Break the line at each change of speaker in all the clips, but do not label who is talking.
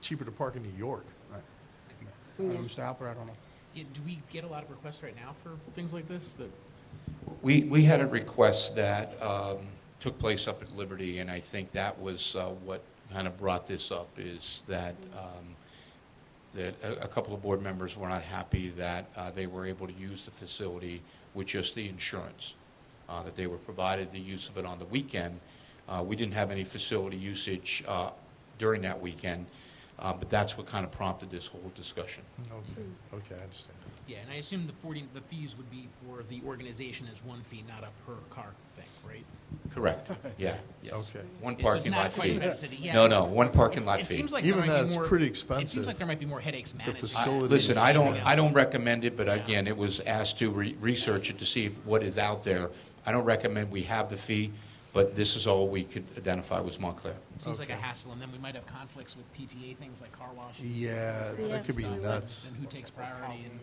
cheaper to park in New York. I- I don't know, Mr. Alper, I don't know.
Yeah, do we get a lot of requests right now for things like this that?
We, we had a request that um, took place up at Liberty, and I think that was uh, what kind of brought this up, is that, um, that a, a couple of board members were not happy that uh, they were able to use the facility with just the insurance, uh, that they were provided the use of it on the weekend. Uh, We didn't have any facility usage uh, during that weekend, uh, but that's what kind of prompted this whole discussion.
Hmm.
Okay, okay, I understand.
Yeah, and I assume the forty, the fees would be for the organization as one fee, not a per car thing, right?
Correct, yeah, yes.
Okay.
One
So it's
parking
not
lot
quite
fee.
subsidy, yeah.
No, no, one parking
It's-
lot
it
fee.
seems like there
Even
might be
that's
more-
pretty
It
expensive.
seems like there might be more headaches managing.
I-
facility
Listen, I don't, I don't
Yes.
recommend it, but
Yeah.
again, it was asked to re- research it to see if- what is out there. I don't recommend we have the fee, but this is all we could identify was Montclair.
It Seems like a
Okay.
hassle, and then we might have conflicts with PTA things like car washes.
Yeah, that could be nuts.
And who takes priority and.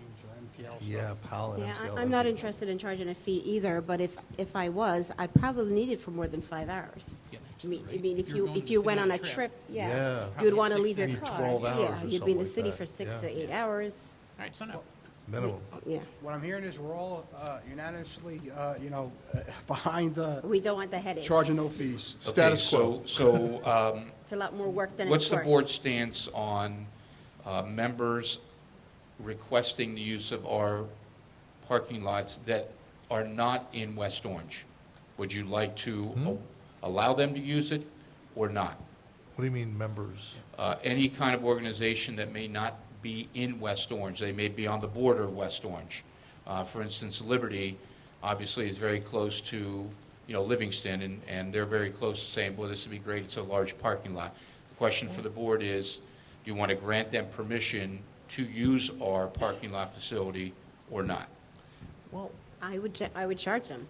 Yeah, pollen.
Yeah, I- I'm not interested in charging a fee either, but if, if I was, I'd probably need it for more than five hours.
Yeah,
I mean, I
right.
mean, if
You're
you,
going to
if
the
you
city
went
on
on
a
a
trip.
trip, yeah,
Yeah.
you'd
Probably
want to
six
leave your
hours.
car.
Need
12 hours or
Yeah, you'd be
something
in the
like
city
that,
for six
yeah.
to eight hours,
All right, so no.
Minimum.
yeah.
What I'm hearing is we're all uh, unanimously, uh, you know, behind uh,
We don't want the headache.
charging no fees.
Status
Okay, so-
quo.
So, um,
It's a lot more work than it's
what's the
worth.
board's stance on uh, members requesting the use of our parking lots that are not in West Orange? Would you like to
Hmm?
a- allow them to use it or not?
What do you mean members?
uh, any kind of organization that may not be in West Orange. They may be on the border of West Orange. Uh, For instance, Liberty obviously is very close to, you know, Livingston, and, and they're very close to saying, well, this would be great, it's a large parking lot. The question for the board is, do you want to grant them permission to use our parking lot facility or not?
Well,
I would, cha- I would charge them.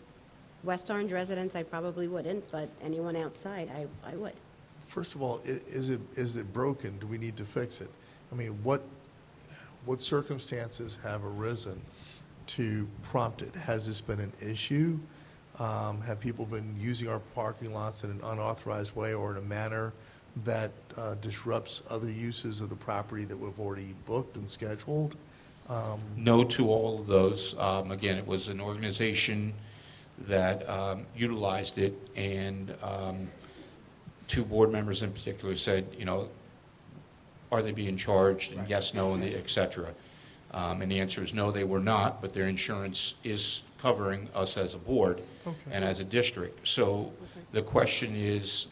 West Orange residents, I probably wouldn't, but anyone outside, I, I would.
First of all, i- is it, is it broken? Do we need to fix it? I mean, what, what circumstances have arisen to prompt it? Has this been an issue? Um, Have people been using our parking lots in an unauthorized way or in a manner that uh, disrupts other uses of the property that we've already booked and scheduled?
no to all of those. Um, Again, it was an organization that um, utilized it, and um, two board members in particular said, you know, are they being charged, and yes, no, and the- et cetera. Um, And the answer is no, they were not, but their insurance is covering us as a board and as a district. So the question is,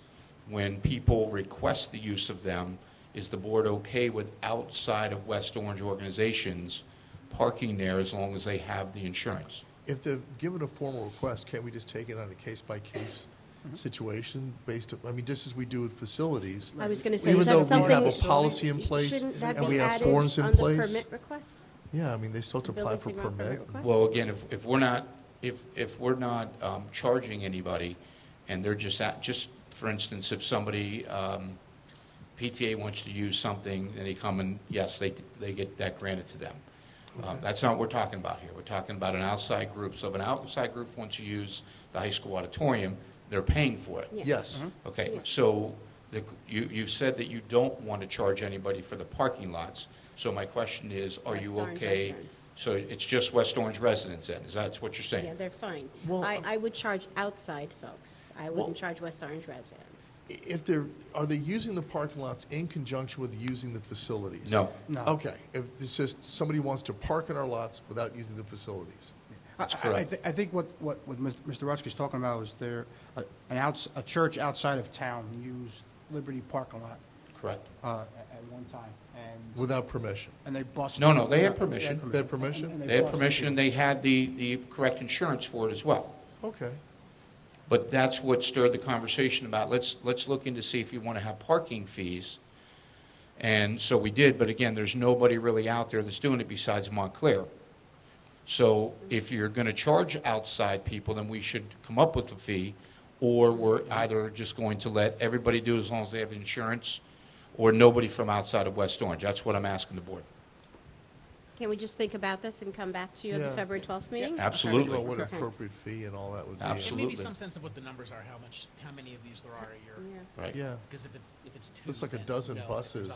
when people request the use of them, is the board okay with outside of West Orange organizations parking there as long as they have the insurance?
If they've given a formal request, can't we just take it on a case-by-case situation based, on- I mean, just as we do with facilities?
I was gonna say,
Even
is
though
that
we
something?
have a policy in place
Shouldn't that
and we
be
have
added
forms in
on the
place?
permit requests?
Yeah, I mean, they still have to apply
Building
for
signal
permit.
permit request?
Well, again, if, if we're not, if, if we're not um, charging anybody, and they're just, at- just, for instance, if somebody, um, PTA wants to use something, and they come and, yes, they, they get that granted to them. Uh, That's not what we're talking about here. We're talking about an outside group. So if an outside group wants to use the high school auditorium, they're paying for it.
Yeah.
Yes,
Okay, so the- you, you've said that you don't want to charge anybody for the parking lots. So my question is, are you
West Orange
okay?
residents.
So it's just West Orange residents then, is that what you're
Yeah,
saying?
they're fine.
Well,
I,
um,
I would charge outside folks. I
Well-
wouldn't charge West Orange residents.
I- if they're, are they using the parking lots in conjunction with using the facilities?
No.
No.
Okay, if it's just, somebody wants to park in our lots without using the facilities.
That's
correct.
I think what, what what Mis- Mr. Rutschke's talking about is there, uh, an outs, a church outside of town used Liberty parking lot
Correct.
uh, at at one time, and,
Without permission.
and they busted.
No, no, they had
Yeah,
permission.
They had permission?
And- and
They had
busted.
permission, and they had the, the correct insurance for it as well.
Okay,
But that's what stirred the conversation about, let's, let's look into see if you want to have parking fees. And so we did, but again, there's nobody really out there that's doing it besides Montclair. So if you're going to charge outside people, then we should come up with a fee, or we're either just going to let everybody do as long as they have insurance, or nobody from outside of West Orange. That's what I'm asking the board.
Can we just think about this and come back to you at the
Yeah.
February 12th meeting?
think about
Absolutely.
what
Okay.
appropriate fee and all that would be.
And maybe
Absolutely.
some sense of what the numbers are, how much, how many of these there are a year.
Yeah.
Right.
Yeah,
Because if it's, if it's two.
it's like a
then
dozen
no. If there's a
buses